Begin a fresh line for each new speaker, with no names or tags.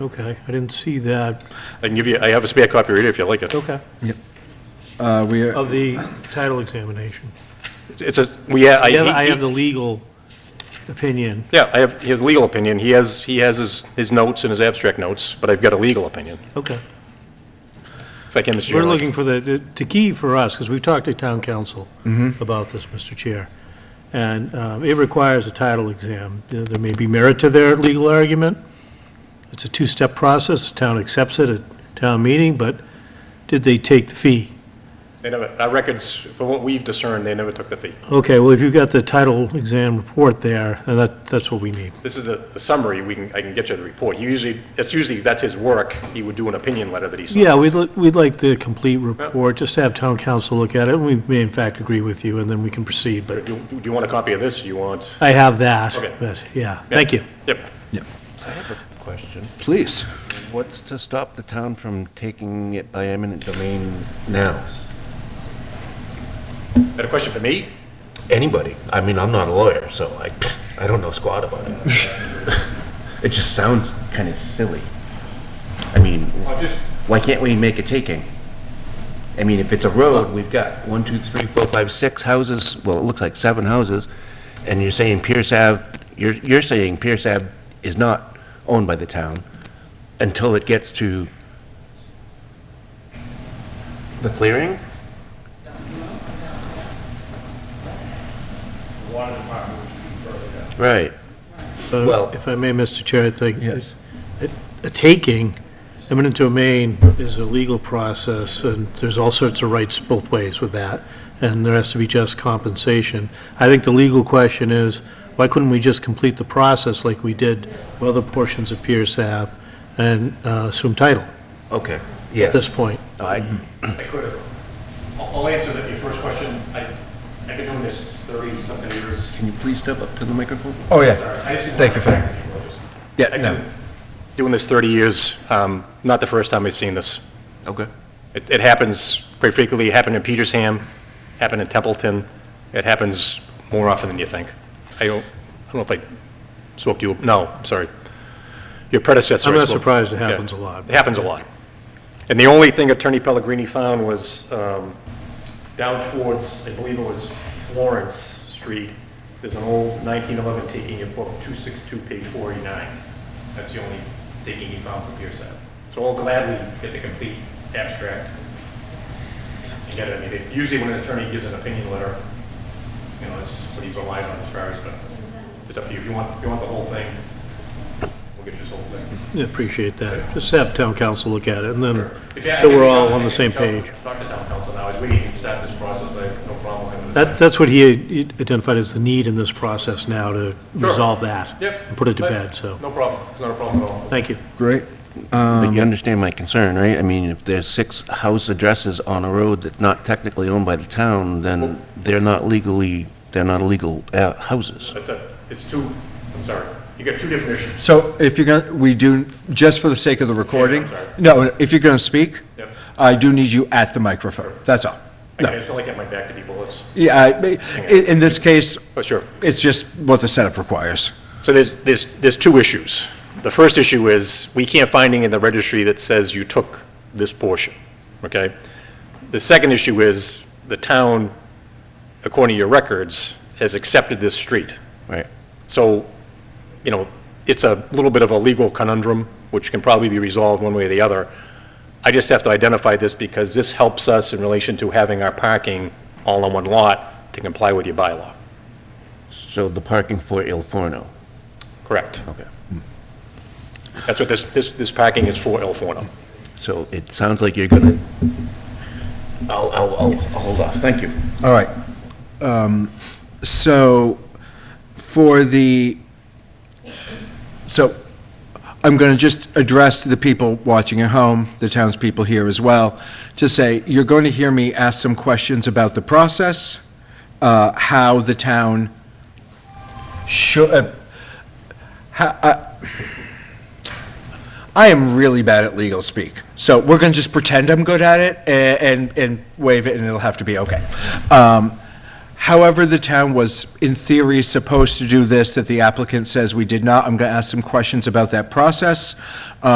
Okay, I didn't see that.
I can give you, I have a spare copy right here if you like it.
Okay,
Uh, we,
of the title examination.
It's a, we, ha- I.
I have, I
he-
have the legal opinion.
Yeah, I have his legal opinion. He has, he has his, his notes and his abstract notes, but I've got a legal opinion.
Okay.
If I can, Mr.
We're
Chairman.
looking for the- the, the key for us, because we've talked to town council about this, Mr. Chair. And uh, it requires a title exam. There there may be merit to their legal argument. It's a two-step process. The Town accepts it at town meeting, but did they take the fee?
They never, our records, from what we've discerned, they never took the fee.
Okay, well, if you've got the title exam report there, and that, that's what we need.
This is a a summary, we can, I can get you the report. He usually, it's usually, that's his work. He would do an opinion letter that he signs.
Yeah, we'd, li- we'd like the complete report, just to have town council look at it, and we may in fact agree with you, and then we can proceed, but
Do do you want a copy of this? Do you want?
I have that,
Okay.
but, yeah, thank you.
Yep.
Question.
please.
What's to stop the town from taking it by eminent domain now?
Got a question for me?
Anybody? I mean, I'm not a lawyer, so I, I don't know squat about it. It just sounds kind of silly. I mean, why can't we make a taking? I mean, if it's a road, we've got one, two, three, four, five, six houses, well, it looks like seven houses, and you're saying Pierce Ave, you're, you're saying Pierce Ave is not owned by the town until it gets to the clearing? Right.
Uh,
Well-
If I may, Mr. Chair, I think.
Yes.
a- A taking, eminent domain is a legal process, and there's all sorts of rights both ways with that, and there has to be just compensation. I think the legal question is, why couldn't we just complete the process like we did with other portions of Pierce Ave and uh, assume title
Okay,
at
yeah.
this point?
I-
I could have. I'll I'll answer that, your first question. I, I've been doing this thirty-something years.
Can you please step up to the microphone?
Oh, yeah. Thank you for- Yeah, no.
Doing this thirty years, um, not the first time I've seen this.
Okay.
It, it happens pretty frequently. It happened in Petersham, happened in Templeton. It happens more often than you think. I don't, I don't know if I spoke to you, no, I'm sorry. Your predecessor.
I'm
I
not
spoke-
surprised it
yeah.
happens a lot.
It happens a lot. And the only thing Attorney Pellegrini found was um, down towards, I believe it was Florence Street, there's an old 1911 taking in book 262, page 489. That's the only taking he found from Pierce Ave. So I'll gladly get the complete abstract. You get it, I mean, they- usually when an attorney gives an opinion letter, you know, that's what he relies on as far as, but it's up to you. If you want, if you want the whole thing, we'll get you the whole thing.
Yeah, Appreciate that. Just have town council look at it, and then,
If you- I
so
think
we're
we
all
can-
on the
I
same
can talk-
page.
Talk to town council now, as we can start this process, I have no problem with it.
That, that's what he identified as the need in this process now to resolve that.
Yep.
And put it to bed, so,
No problem, it's not a problem at all.
thank you.
Great.
But you understand my concern, right? I mean, if there's six house addresses on a road that's not technically owned by the town, then they're not legally, they're not illegal uh, houses.
It's a, it's two, I'm sorry, you got two different issues.
So if you're going, to we do, just for the sake of the recording,
sorry.
no, if you're going to speak,
Yep.
I do need you at the microphone. That's all.
I I just don't like getting my back to people, it's.
Yeah, I- i- in this case,
Oh, sure.
it's just what the setup requires.
So there's, there's, there's two issues. The first issue is, we can't find anything in the registry that says you took this portion, okay? The second issue is, the town, according to your records, has accepted this street.
Right.
So, you know, it's a little bit of a legal conundrum, which can probably be resolved one way or the other. I just have to identify this because this helps us in relation to having our parking all on one lot to comply with your bylaw.
So the parking for Il Forno.
Correct.
Okay.
Hmm. That's what this, this, this parking is for, El Forno.
So it sounds like you're gonna, I'll, I'll, I'll I'll hold off. Thank you.
All right. Um, So for the, so I'm going to just address the people watching at home, the townspeople here as well, to say, you're going to hear me ask some questions about the process, uh, how the town should, uh, how, uh, I am really bad at legal speak, so we're gonna just pretend I'm good at it a- and, and waive it, and it'll have to be okay. Um, However, the town was, in theory, supposed to do this, that the applicant says we did not. I'm gonna ask some questions about that process.